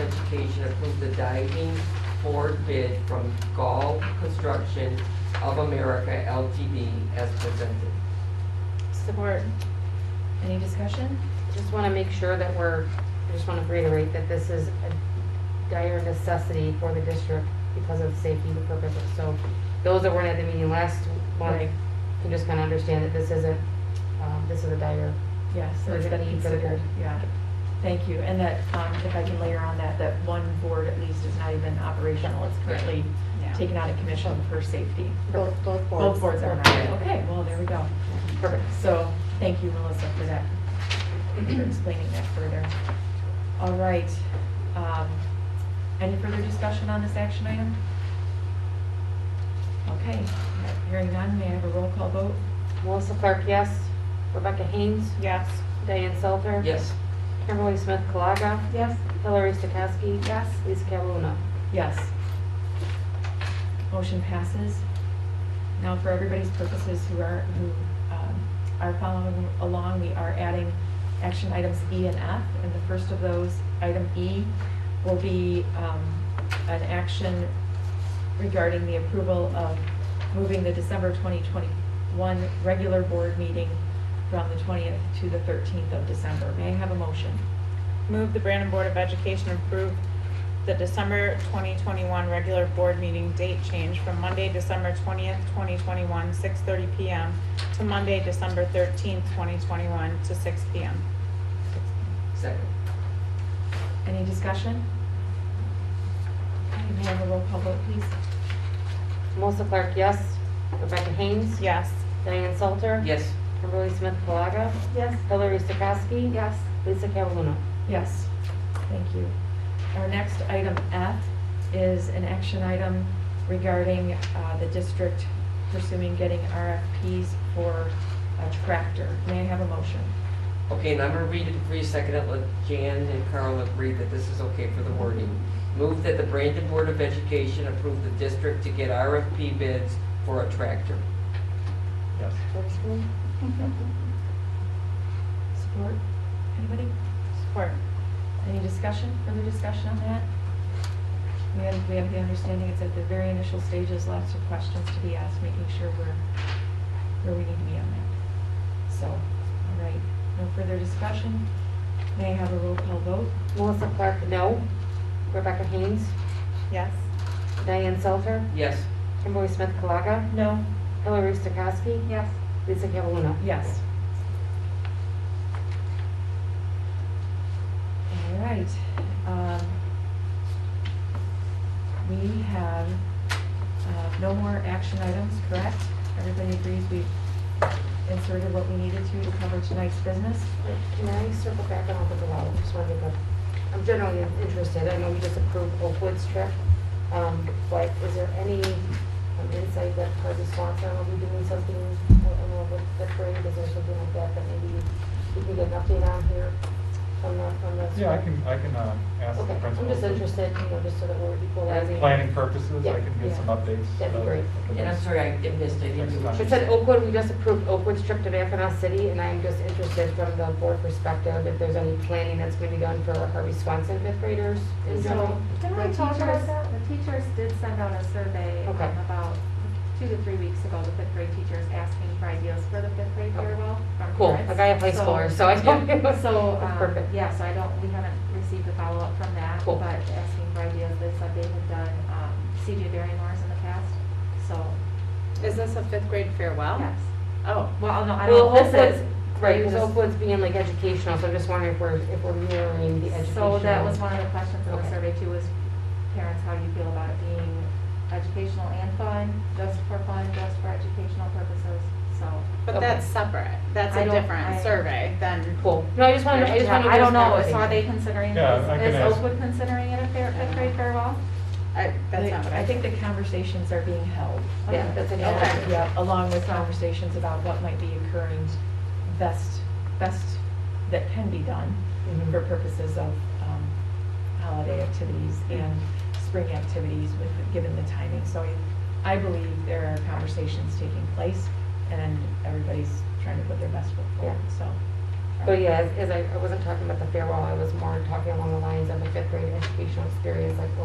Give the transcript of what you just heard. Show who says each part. Speaker 1: application approve the diving board bid from Gall Construction of America LTD as presented.
Speaker 2: Support.
Speaker 3: Any discussion?
Speaker 2: Just want to make sure that we're, I just want to reiterate that this is a dire necessity for the district because of safety and purposes. So those that weren't at the meeting last month
Speaker 3: Right.
Speaker 2: can just kind of understand that this isn't, um, this is a dire.
Speaker 3: Yes, so
Speaker 2: Or
Speaker 3: it's
Speaker 2: is it
Speaker 3: been
Speaker 2: need for the
Speaker 3: considered,
Speaker 2: board?
Speaker 3: yeah. Thank you, and that, um, if I can layer on that, that one board at least is not even operational, it's currently taken out of commission for safety.
Speaker 2: Both, both
Speaker 3: Both boards are not, okay, well, there we go.
Speaker 2: Perfect.
Speaker 3: So, thank you, Melissa, for that, for explaining that further. All right, um, any further discussion on this action item? Okay, hearing none, may I have a roll call vote?
Speaker 2: Melissa Clark, yes. Rebecca Haynes,
Speaker 3: Yes.
Speaker 2: Diane Salter.
Speaker 1: Yes.
Speaker 2: Kimberly Smith Colaga,
Speaker 3: Yes.
Speaker 2: Hillary Stokowski.
Speaker 3: Yes.
Speaker 2: Lisa Caluna.
Speaker 3: Yes. Motion passes. Now, for everybody's purposes who are, who um, are following along, we are adding action items E and F. And the first of those, item E, will be um, an action regarding the approval of moving the December 2021 regular board meeting from the 20th to the 13th of December. May I have a motion?
Speaker 4: Move the Brandon Board of Education approve the December 2021 regular board meeting date change from Monday, December 20th, 2021, 6:30 PM to Monday, December 13th, 2021 to 6 PM.
Speaker 1: Second.
Speaker 3: Any discussion? Okay, May I have a roll call vote, please?
Speaker 2: Melissa Clark, yes. Rebecca Haynes.
Speaker 4: Yes.
Speaker 2: Diane Salter.
Speaker 1: Yes.
Speaker 2: Kimberly Smith Colaga.
Speaker 3: Yes.
Speaker 2: Hillary Stokowski.
Speaker 3: Yes.
Speaker 2: Lisa Caluna.
Speaker 3: Yes, thank you. Our next item F is an action item regarding uh, the district pursuing getting RFPs for a tractor. May I have a motion?
Speaker 1: Okay, and I'm gonna read it for you a second, and let Jan and Carl agree that this is okay for the wording. Move that the Brandon Board of Education approve the district to get RFP bids for a tractor. Yes.
Speaker 3: Support? Anybody?
Speaker 4: Support.
Speaker 3: Any discussion, further discussion on that? We have, we have the understanding it's at the very initial stages, lots of questions to be asked, making sure we're, where we need to be on that. So, all right, no further discussion. May I have a roll call vote?
Speaker 2: Melissa Clark, no. Rebecca Haynes.
Speaker 4: Yes.
Speaker 2: Diane Salter.
Speaker 1: Yes.
Speaker 2: Kimberly Smith Colaga.
Speaker 3: No.
Speaker 2: Hillary Stokowski.
Speaker 3: Yes.
Speaker 2: Lisa Caluna.
Speaker 3: Yes. All right. um, We have uh, no more action items, correct? Everybody agrees we've inserted what we needed to to cover tonight's business?
Speaker 2: Can I circle back on Oakwood Lawler? Just want to make a, I'm generally interested. I know we just approved Oakwood's trip. Um, but is there any um, insight that her response, are we doing something, I don't know, with the parade, is there something like that that maybe we can get an update on here from the, from the?
Speaker 5: Yeah, I can, I can uh, ask the
Speaker 2: Okay, I'm
Speaker 5: principal.
Speaker 2: just
Speaker 5: for
Speaker 2: interested, you know, just so that we're equalizing.
Speaker 5: Planning purposes,
Speaker 2: Yeah,
Speaker 5: I can
Speaker 3: yeah.
Speaker 5: get some updates.
Speaker 2: That'd be
Speaker 5: uh,
Speaker 2: great.
Speaker 5: at the
Speaker 1: And I'm
Speaker 5: next-
Speaker 1: sorry, I missed, I didn't.
Speaker 2: It said
Speaker 1: Oh,
Speaker 2: Oakwood, we just approved Oakwood's trip to Mackinac City, and I'm just interested from the board perspective, if there's any planning that's gonna be done for Harvey Swanson fifth graders in general.
Speaker 6: So, didn't we
Speaker 2: The
Speaker 6: talk
Speaker 2: teachers-
Speaker 6: about that? The teachers did send out a survey um,
Speaker 2: Okay.
Speaker 6: about two to three weeks ago, the fifth grade teachers asking for ideas for the fifth grade
Speaker 2: Okay.
Speaker 6: year well. from
Speaker 2: Cool,
Speaker 6: parents.
Speaker 2: like I have high
Speaker 6: So-
Speaker 2: schoolers, so I don't.
Speaker 6: So,
Speaker 2: That's
Speaker 6: um,
Speaker 2: perfect.
Speaker 6: yeah, so I don't, we haven't received a follow-up from that,
Speaker 2: Cool.
Speaker 6: but asking for ideas, they said they had done um, CJ Barrymore's in the past, so,
Speaker 7: Is this a fifth grade farewell?
Speaker 6: yes.
Speaker 7: Oh,
Speaker 6: Well, no, I
Speaker 2: Well,
Speaker 6: don't, this
Speaker 2: Oakwood's,
Speaker 6: is.
Speaker 2: right,
Speaker 6: you
Speaker 2: because
Speaker 6: just-
Speaker 2: Oakwood's being like educational, so I'm just wondering if we're, if we're mirroring the educational.
Speaker 6: So that was one of the questions in the
Speaker 2: Okay.
Speaker 6: survey too, was parents, how do you feel about it being educational and fun, just for fun, just for educational purposes, so.
Speaker 7: but
Speaker 2: Okay.
Speaker 7: that's separate. That's
Speaker 6: I
Speaker 7: a
Speaker 6: don't- I-
Speaker 7: different survey than,
Speaker 2: Cool, no, I just wanted, I just wanted.
Speaker 6: I don't know,
Speaker 2: it's
Speaker 6: so are they considering,
Speaker 5: Yeah, I can
Speaker 6: is
Speaker 5: ask.
Speaker 6: Oakwood considering it a fair, fifth grade farewell?
Speaker 7: I, that's not what I.
Speaker 3: I think the conversations are being held.
Speaker 2: Yeah, that's
Speaker 3: Yeah,
Speaker 2: okay.
Speaker 3: Yeah, along with conversations about what might be occurring best, best that can be done
Speaker 2: Mhm.
Speaker 3: for purposes of um, holiday activities and spring activities with, given the timing. So I- I believe there are conversations taking place and everybody's trying to put their best foot forward, so.
Speaker 2: But yeah, as, as I, I wasn't talking about the farewell, I was more talking along the lines of the fifth grade educational experience, like